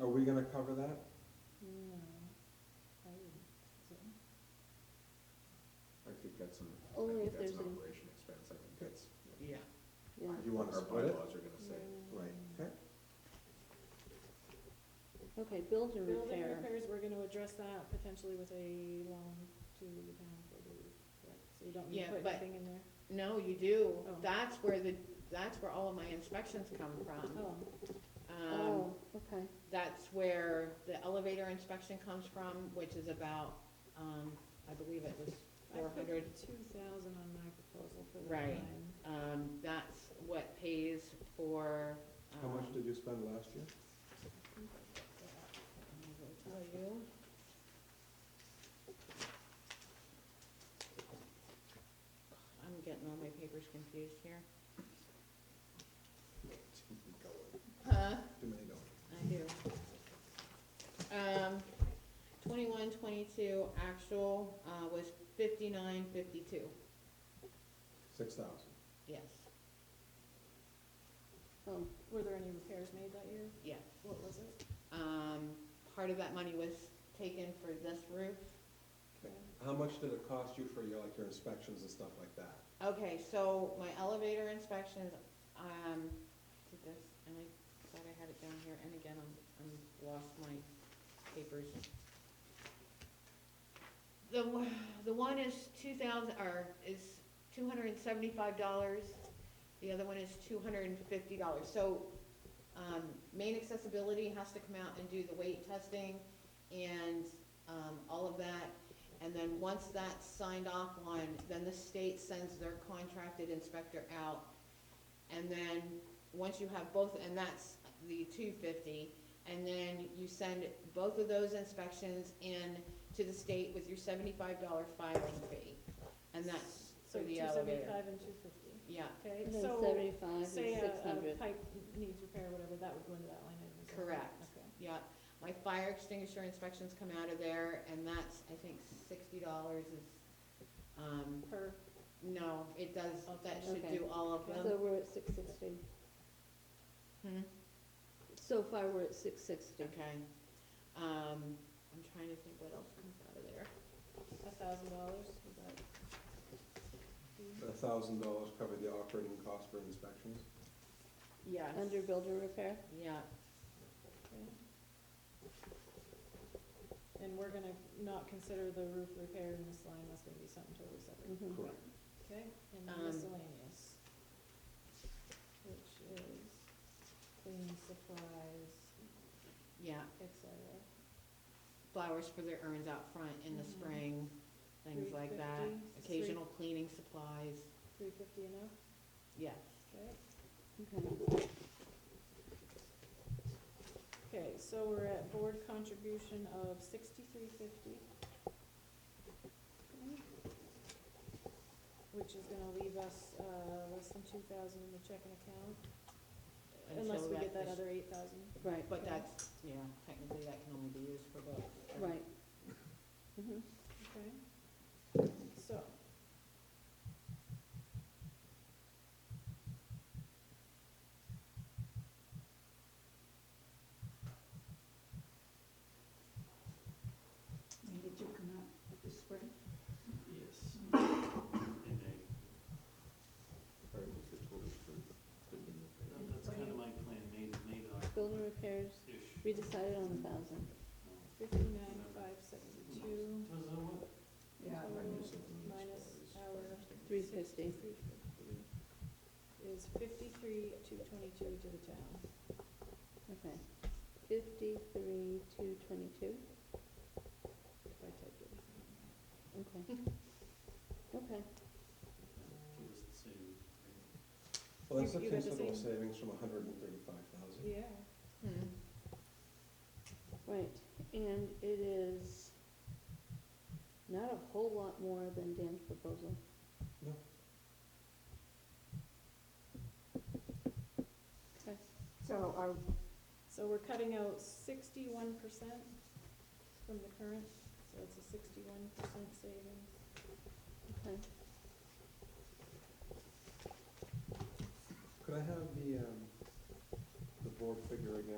Are we gonna cover that? No, I wouldn't, think I think that's an, I Only think if that's there's an an- operation expense, I think that's, Yeah, so. yeah. You wanna our split it? bylaws are gonna say. Right, okay. Okay, build and building repair. repairs, we're gonna address that potentially with a loan to the town for the roof, correct? So you don't Yeah, need to put but- anything in there? No, you do. Oh. That's where the, that's where all of my inspections come from. Oh, Um, oh, okay, that's where the elevator inspection comes from, which is about, um, I believe it was four I hundred. put two thousand on my proposal for the Right. line. Um, that's what pays for, um. How much did you spend last year? I will tell you. I'm getting all my papers confused here. Too many dollars. Huh? Too many dollars. I do. Um, twenty-one, twenty-two, actual, uh, was fifty-nine, fifty-two, Six thousand. yes, oh, Were there any repairs made that year? yeah. What was it? Um, part of that money was taken for this roof. Okay. How much did it cost you for your, like, your inspections and stuff like that? Okay, so my elevator inspections, um, did this, and I thought I had it down here, and again, I'm, I'm lost my papers. The, one- the one is two thousand, or is two hundred and seventy-five dollars, the other one is two hundred and fifty dollars, so, um, main accessibility has to come out and do the weight testing and, um, all of that. And then once that's signed off on, then the state sends their contracted inspector out. And then, once you have both, and that's the two fifty, and then you send both of those inspections in to the state with your seventy-five dollar filing fee. And that's So for two the elevator. seventy-five and two fifty, Yeah, okay? and then So, seventy-five is say six a, a hundred. pipe needs repair, whatever, that would go into that line item. is that right? Correct. Okay. yeah. My fire extinguisher inspections come out of there, and that's, I think, sixty dollars is, um, Per, no, it does, that should Okay. do all of them. So we're at six sixty, Hmm? so far we're at six sixty. Okay, um, I'm trying to think what else comes out of there. a thousand dollars, is that? A thousand dollars covered the operating cost for inspections? Yes. Under build and repair, Yeah, Okay. And we're gonna not consider the roof repair in this line, that's gonna be something totally separate, mhm. Correct. okay? And then Um, miscellaneous, which is cleaning supplies, yeah, et cetera. flowers for their urns out front in the Mhm. spring, things like that. 350, Occasional cleaning supplies, Three fifty enough, yes. okay? okay. Okay, so we're at board contribution of sixty-three fifty. Which is gonna leave us, uh, less than two thousand in the checking account, unless until we that get that is- other eight thousand. Right, But that's, yeah, technically that can only be used for both. right. Mhm. Okay, so. Did you come out this spring? Yes. And I, All right, what's the total for building repair? no, that's kind of my plan, made, made Build and repairs, ish. we decided on a thousand. Fifty-nine, five seventy-two, Was that what? Yeah. Minus of the Minus supplies, our fire extinguisher. Three fifty. is fifty-three, two twenty-two to the town. Okay. Fifty-three, two twenty-two, If I typed everything in there. okay. Okay, It was the same. Well, that's a You- you got the considerable same? savings from a hundred and thirty-five thousand. Yeah. Hmm. right, and it is not a whole lot more than Dan's proposal. No. Okay, So are, So we're cutting out sixty-one percent from the current, so it's a sixty-one percent savings. okay. Could I have the, um, the board figure again